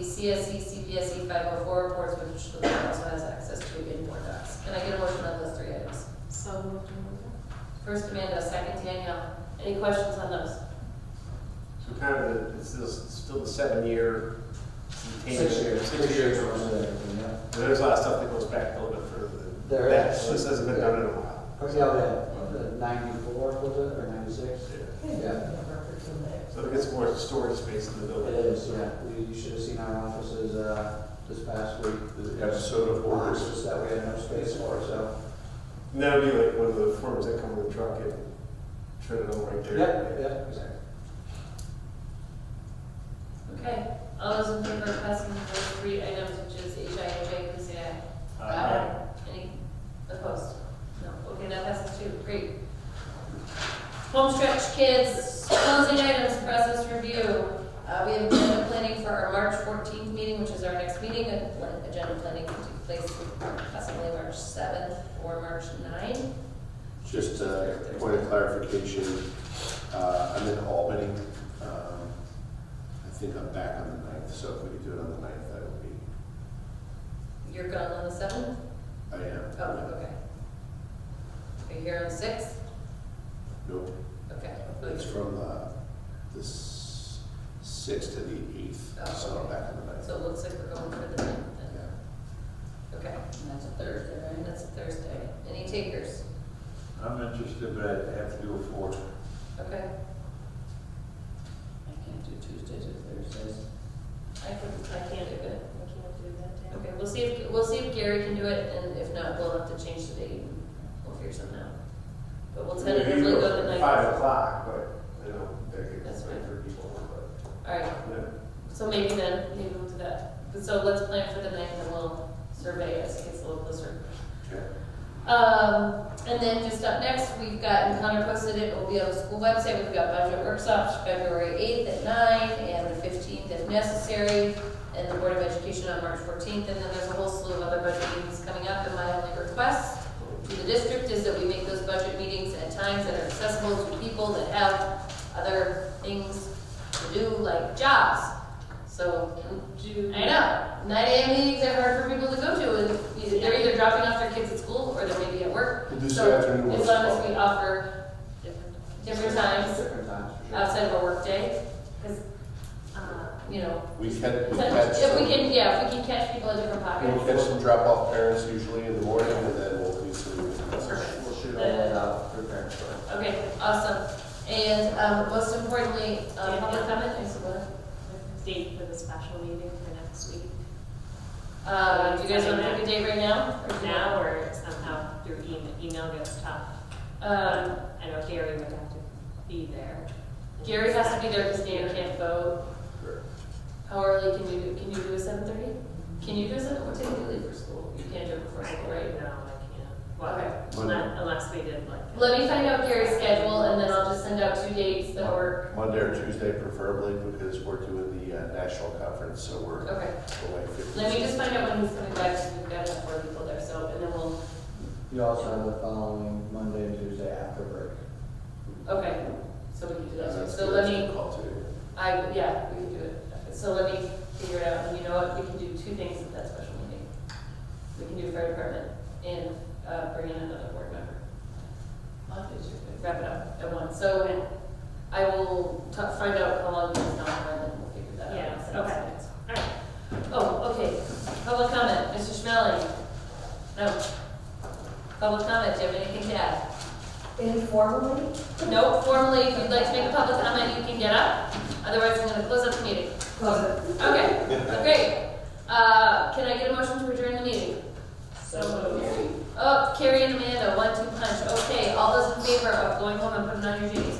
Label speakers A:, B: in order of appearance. A: CSE, CPSE, five oh four reports, which the board also has access to in board docs. Can I get a motion on those three items?
B: So moved.
A: First Amanda, second Danielle. Any questions on those?
C: So kind of, the- it's still, still the seven-year. containment.
D: Six years, six years or something, yeah.
C: There's a lot of stuff that goes back a little bit further than
D: There
C: that,
D: is.
C: so this hasn't been done in a while.
D: What's the other, ninety-four was it, or ninety-six? Yeah.
C: So it gets more storage space in the
D: It
C: building.
D: is, yeah, you, you should have seen our offices, uh, this past week.
E: They've got soda boards.
D: Boxes that we had no space for, so.
C: And that'll be like one of the forms that come in the truck and turn it on right there.
D: Yep, yep, exactly.
A: Okay, all those in favor of passing those three items, which is HIJ, please say aye. Any opposed? No, okay, that passes too, great. Home stretch kids, closing items, process review. Uh, we have agenda planning for our March fourteenth meeting, which is our next meeting, and pla- agenda planning can take place possibly March seventh or March 9th.
E: Just a point of clarification, uh, I'm in Albany. Um, I think I'm back on the ninth, so if we could do it on the ninth, that would be,
A: You're gone on the seventh?
E: I am.
A: Oh, okay. Are you here on the sixth?
E: Nope,
A: Okay.
E: it's from uh, the s- sixth to the eighth,
A: Oh,
E: so I'm
A: okay.
E: back on the ninth.
A: So it looks like we're going for the ninth then.
E: Yeah.
A: Okay,
B: That's a Thursday, right?
A: and that's a Thursday. Any takers?
F: I'm interested, but I have to do a four.
A: Okay,
B: I can't do Tuesdays or Thursdays.
A: I can, I can't do it.
B: I can't do that
A: Okay, we'll see if, we'll see if Gary can do it, and if not, we'll have to change the date. We'll figure something out. But we'll tentatively
C: Maybe
A: go the
C: at
A: night.
C: Five o'clock, but, you know, that could
A: That's fine.
C: for people,
A: All right,
C: but, yeah.
A: so maybe then, maybe we'll do that. But So let's plan for the ninth, and we'll survey as it gets a little closer.
E: Okay.
A: Um, and then just up next, we've got, and Connor posted it, it'll be on the school website, we've got budget workshops February eighth at nine and the fifteenth if necessary, and the Board of Education on March fourteenth, and then there's a whole slew of other budget meetings coming up, and my only request to the district is that we make those budget meetings at times that are accessible to people that have other things to do, like jobs. So,
B: Do.
A: I know. 9 a.m. meetings are hard for people to go to. and either- They're either dropping off their kids at school or they're maybe at work.
E: We'll do
A: So,
E: some afternoon
A: As
E: ones.
A: long as we offer different times
D: Different times, for sure.
A: outside of a workday, because, uh, you know,
E: We can, we catch
A: if we can,
E: some,
A: yeah, if we can catch people in different
E: we'll
A: pockets.
E: catch some drop-off parents usually in the morning, and then we'll do some.
A: Perfect.
D: We'll shoot all that out, prepare for it.
A: Okay, awesome. And um, most importantly, uh, public comment, I suppose.
B: Date for the special meeting for next week,
A: Uh, Do you guys want to pick a date right now?
B: or now, or somehow through email, email gets tough.
A: Um,
B: I know Gary would have to be there.
A: Gary has to be there because Dana can't vote. How early can you do, can you do a seven thirty? Can you do a seven, what time do you leave for school? You can't do it before
B: Right,
A: school,
B: right
A: right?
B: now, I can't.
A: Okay.
B: Well, unless, unless we did like.
A: Let me find out Gary's schedule and then I'll just send out two dates that work.
E: Monday or Tuesday preferably, because we're doing the uh, national conference, so we're
A: Okay,
E: away fifteen.
A: let me just find out when he's coming back, because we've got enough four people there, so, and then we'll,
D: You also have the following Monday and Tuesday after break.
A: okay. So we can do
E: Uh,
A: that,
E: that's
A: so
E: good.
A: let
E: That's a good
A: me,
E: Call too.
A: I, yeah, we can do it. So let me figure it out, and you know what, we can do two things at that special meeting. We can do fire department and, uh, bring in another board member.
B: Mondays are good.
A: wrap it up at once. So I will t- find out how long it's not, and then we'll figure that out.
B: Yeah, okay. All right.
A: Oh, okay, public comment, Mr. Schmeling? No. Public comment, do you have anything to add?
G: Informally?
A: No, formally, if you'd like to make a public comment, you can get up, otherwise I'm gonna close up the meeting.
G: Close it.
A: Okay, great. Uh, can I get a motion to adjourn the meeting?
B: So
A: Oh, Carrie and Amanda, one, two punch. Okay, all those in favor of going home and putting on your jeans? Oh,